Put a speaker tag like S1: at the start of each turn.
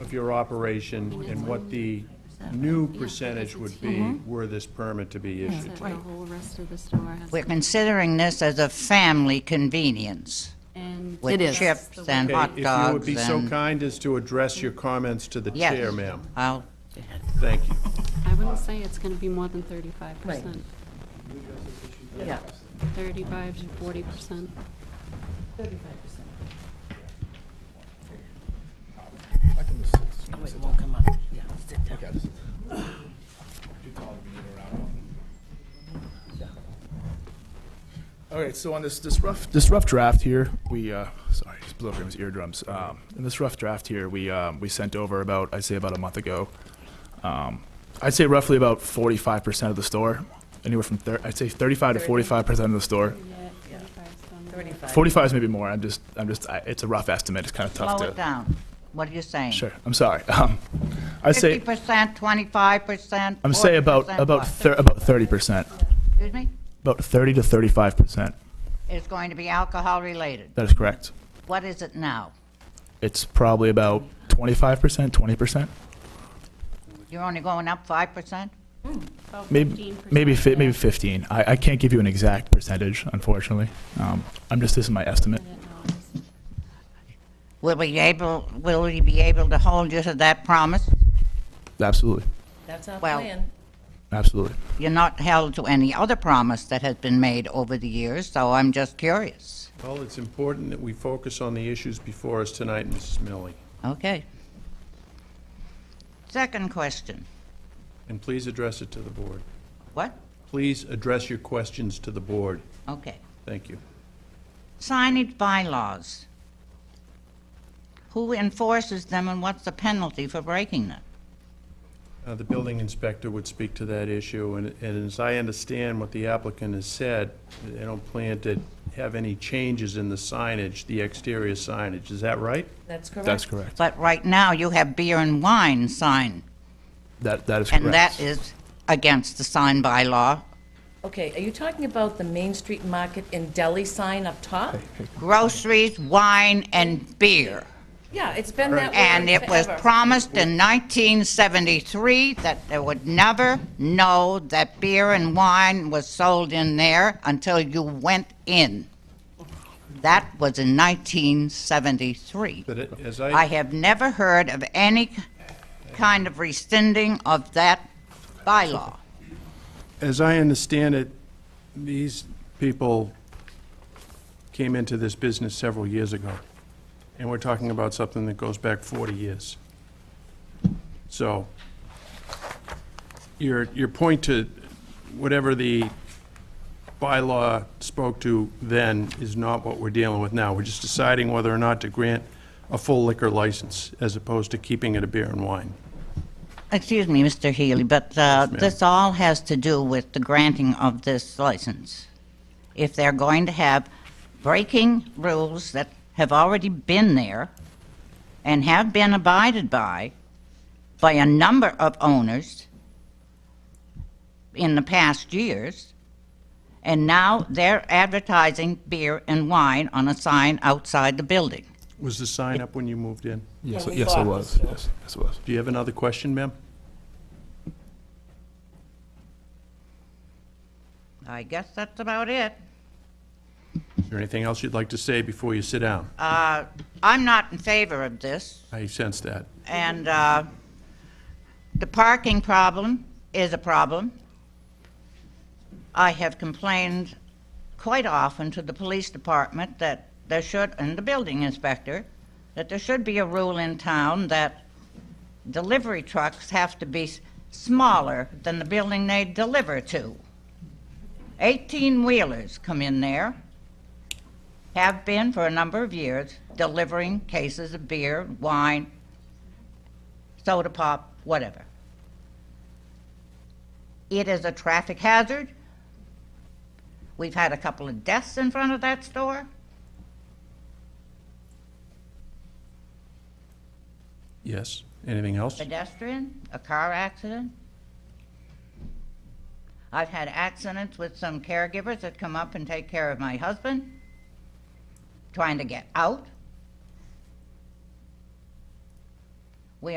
S1: of your operation and what the new percentage would be were this permit to be
S2: Is
S1: issued.
S2: it the whole rest of the store has.
S3: We're considering this as a family convenience
S2: And
S3: with
S4: It is.
S3: chips and
S1: Okay, If
S3: hot
S1: you would
S3: dogs
S1: be so
S3: and,
S1: kind as to address your comments to the
S3: yes.
S1: chair, ma'am.
S3: I'll-
S1: Thank you.
S2: I wouldn't say it's going to be more than thirty-five percent.
S4: Yeah.
S2: Thirty-five to forty percent.
S4: Oh, it won't come up. Yeah, sit down.
S5: All right, so on this, this rough, this rough draft here, we, uh, sorry, just blew up his eardrums. Um, in this rough draft here, we, um, we sent over about, I'd say about a month ago. Um, I'd say roughly about forty-five percent of the store, anywhere from thir- I'd say thirty-five to forty-five percent of the store. Forty-five is maybe more. I'm just, I'm just, I, it's a rough estimate. It's kind of tough
S3: slow it
S5: to.
S3: down. What are you saying?
S5: Sure, I'm sorry. Um, I'd
S3: Fifty
S5: say,
S3: percent, twenty-five percent?
S5: I'm say about, about, thir- about thirty percent,
S3: Excuse me?
S5: about thirty to thirty-five percent.
S3: It's going to be alcohol-related.
S5: That is correct.
S3: What is it now?
S5: It's probably about twenty-five percent, twenty percent.
S3: You're only going up five percent?
S5: Maybe, maybe, fi- maybe 15. I, I can't give you an exact percentage, unfortunately. Um, I'm just, this is my estimate.
S3: Will we able, will you be able to hold you to that promise?
S5: Absolutely,
S4: That's our
S3: Well-
S4: plan.
S5: absolutely.
S3: You're not held to any other promise that has been made over the years, so I'm just curious.
S1: Well, it's important that we focus on the issues before us tonight, Mrs. Millie.
S3: Okay. Second question.
S1: And please address it to the board.
S3: What?
S1: Please address your questions to the board.
S3: Okay.
S1: Thank you.
S3: Signage bylaws. Who enforces them and what's the penalty for breaking them?
S1: Uh, The building inspector would speak to that issue, and and as I understand what the applicant has said, they don't plan to have any changes in the signage, the exterior signage. Is that right?
S4: That's correct.
S5: That's correct.
S3: But right now, you have beer and wine sign,
S5: That, that is correct.
S3: and that is against the sign bylaw.
S4: Okay, are you talking about the Main Street Market in Delhi sign up top?
S3: Groceries, wine, and beer.
S4: Yeah, it's been that way
S3: And it was
S4: forever.
S3: promised in 1973 that they would never know that beer and wine was sold in there until you went in. That was in 1973.
S1: But it- as
S3: I
S1: I,
S3: have never heard of any kind of rescinding of that bylaw.
S1: as I understand it, these people came into this business several years ago, and we're talking about something that goes back 40 years. So your, your point to whatever the bylaw spoke to then is not what we're dealing with now. We're just deciding whether or not to grant a full liquor license as opposed to keeping it a beer and wine.
S3: Excuse me, Mr. Healy, but uh, this all has to do with the granting of this license. If they're going to have breaking rules that have already been there and have been abided by, by a number of owners in the past years, and now they're advertising beer and wine on a sign outside the building.
S1: Was the sign up when you moved in?
S5: Yes,
S4: When we
S5: yes, it
S4: bought
S5: was.
S4: this store.
S5: Yes, yes, it was.
S1: Do you have another question, ma'am?
S3: I guess that's about it.
S1: Is there anything else you'd like to say before you sit down?
S3: Uh, I'm not in favor of this.
S1: I sense that.
S3: And uh, the parking problem is a problem. I have complained quite often to the police department that there should, and the building inspector, that there should be a rule in town that delivery trucks have to be s- smaller than the building they deliver to. 18-wheelers come in there, have been for a number of years, delivering cases of beer, wine, soda pop, whatever. It is a traffic hazard. We've had a couple of deaths in front of that store.
S1: Yes. Anything else?
S3: pedestrian, a car accident. I've had accidents with some caregivers that come up and take care of my husband, trying to get out.